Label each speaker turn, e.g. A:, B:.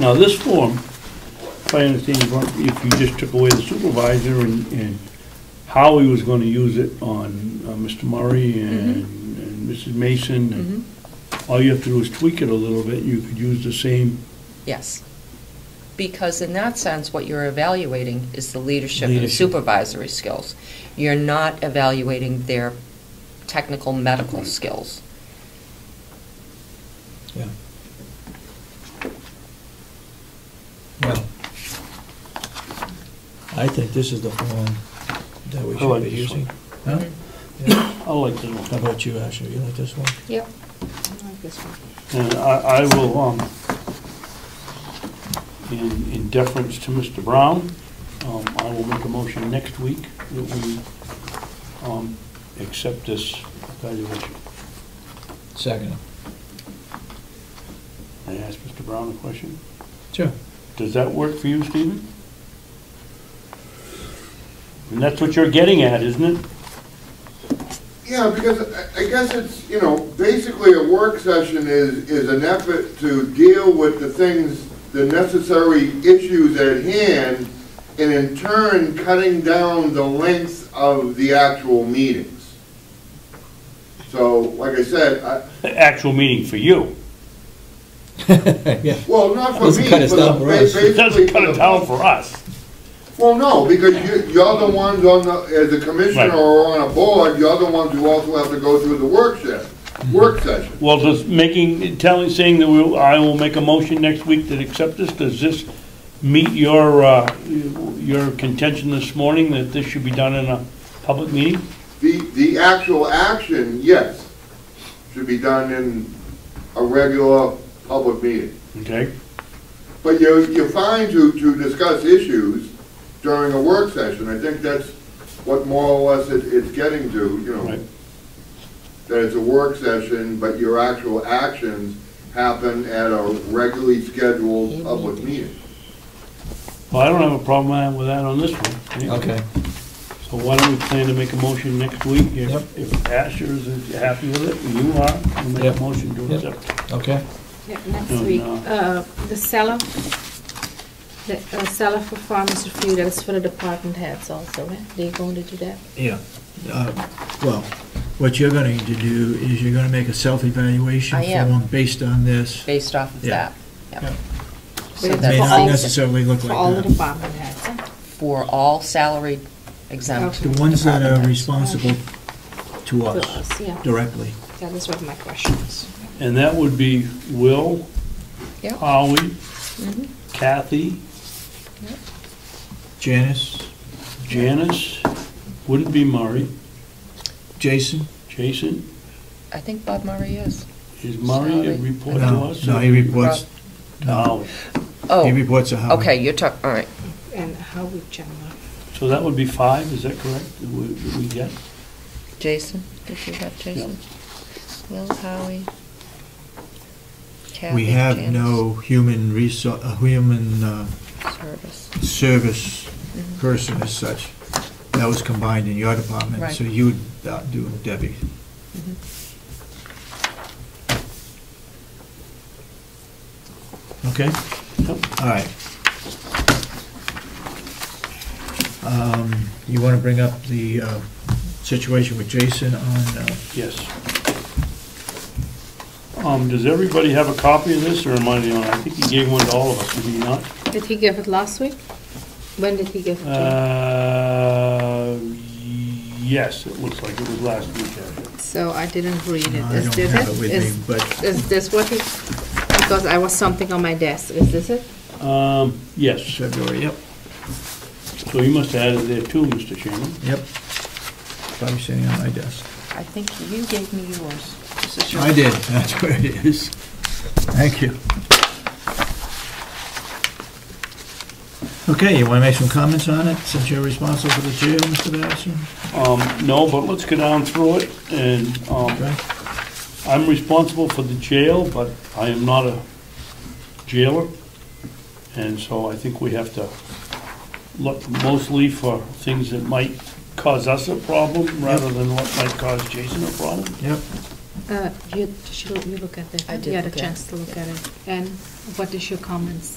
A: Now, this form, if I understand, you want- if you just took away the supervisor and, and Howie was gonna use it on uh, Mr. Murray and and Mrs. Mason,
B: Mm-hmm.
A: and
C: Mm-hmm.
A: all you have to do is tweak it a little bit, you could use the same
B: Yes. Because in that sense, what you're evaluating is the leadership and
A: Leadership.
B: supervisory skills. You're not evaluating their technical medical skills.
C: Yeah. Well, I think this is the form that we
A: I like
C: should be
A: this one.
C: using. Huh?
B: Mhm.
C: Yeah.
A: I like that
C: How
A: one.
C: about you, Ashley? You like this one?
B: Yep.
A: And I, I will, um, in, in deference to Mr. Brown, um, I will make a motion next week that we, um, accept this evaluation.
C: Second.
A: I asked Mr. Brown a question.
C: Sure.
A: Does that work for you, Stephen? And that's what you're getting at, isn't it?
D: Yeah, because I- I guess it's, you know, basically a work session is, is an effort to deal with the things, the necessary issues at hand, and in turn, cutting down the length of the actual meetings. So, like I said, I,
A: The actual meeting for you.
C: Yeah.
D: well, not for me,
C: Doesn't
D: for
C: cut us down
D: the,
C: for
D: ba-
C: us.
D: basically.
A: It doesn't cut
D: for
A: it
D: the
A: down for us.
D: Well, no, because you, you're the ones on the, as a commissioner
A: Right.
D: or on a board, you're the ones who also have to go through the work session, work session.
A: Well, does making, telling, saying that we, I will make a motion next week to accept this, does this meet your, uh, your contention this morning that this should be done in a public meeting?
D: The, the actual action, yes, should be done in a regular public meeting.
A: Okay?
D: But you're, you're fine to, to discuss issues during a work session. I think that's what more or less it, it's getting to, you know.
A: Right.
D: That it's a work session, but your actual actions happen at a regularly scheduled public meeting.
A: Well, I don't have a problem with that on this one.
C: Okay.
A: So why don't we plan to make a motion next week?
C: Yep.
A: If if Asher is happy with it, and you are, we'll make
C: Yep.
A: a motion to
C: Yep.
A: accept.
C: Okay.
E: Yeah, Next
A: No,
E: week,
C: Oh,
A: no.
E: uh, the seller, the uh, seller for farmers review, that's for the department heads also, eh? They going to do that?
C: Yeah. Uh, Well, what you're going to do is you're going to make a self-evaluation
B: I am.
C: form based on this.
B: Based off of
C: Yeah.
B: that. Yep. So
E: Yeah.
C: May
E: For
C: not
E: all-
B: that's
C: necessarily look
E: For all the
C: like that.
E: department heads, eh?
B: for all salaried exempt.
C: The ones that are
B: departments.
C: responsible to
E: To
C: us
E: us, yeah,
C: directly.
E: that is what my question is.
A: And that would be Will,
B: Yep.
A: Howie, Kathy,
C: Janice,
A: Janice, wouldn't be Murray,
C: Jason?
A: Jason,
B: I think Bob Murray is.
A: is Murray a report to
C: No,
A: us?
C: no, he reports,
A: No,
C: he
B: Oh,
C: reports to Howard.
B: okay, you're talking, all right.
E: And how we generally,
A: so that would be five, is that correct, that we, that we get?
B: Jason, did you have Jason? Will, Howie, Kathy,
C: We have
B: Janice,
C: no human resou, uh, human uh,
B: Service.
C: service
E: Mm-hmm.
C: person as such. That was combined in your department,
B: Right.
C: so you would uh, do Debbie.
E: Mm-hmm.
C: Okay?
A: Yep.
C: All right. Um, You want to bring up the uh, situation with Jason on, uh,
A: Yes. Um, does everybody have a copy of this, or am I the only, I think he gave one to all of us, did he not?
E: did he give it last week? When did he give it? to
A: Uh, yes, it looks like it was last weekend.
E: you? So I didn't read it.
C: no, I
E: Is
C: don't
E: this
C: have it with
E: Is-
C: me, but
E: Is this what he, because I was something on my desk, is this it?
A: Um, yes,
C: February, yep,
A: so you must have had it there too, Mr. Chairman.
C: yep. Probably sitting on my desk.
B: I think you gave me yours. This is yours.
C: I did, that's where it is. Thank you. Okay, you want to make some comments on it, since you're responsible for the jail, Mr. Patterson?
A: Um, no, but let's go down through it, and, um,
C: Okay.
A: I'm responsible for the jail, but I am not a jailer, and so I think we have to look mostly for things that might cause us a problem, rather than what might cause Jason a problem.
C: Yep,
E: Uh, you, did you look- you look at it?
B: I did
E: You had a
B: look at it,
E: chance to look at it. And what is your comments?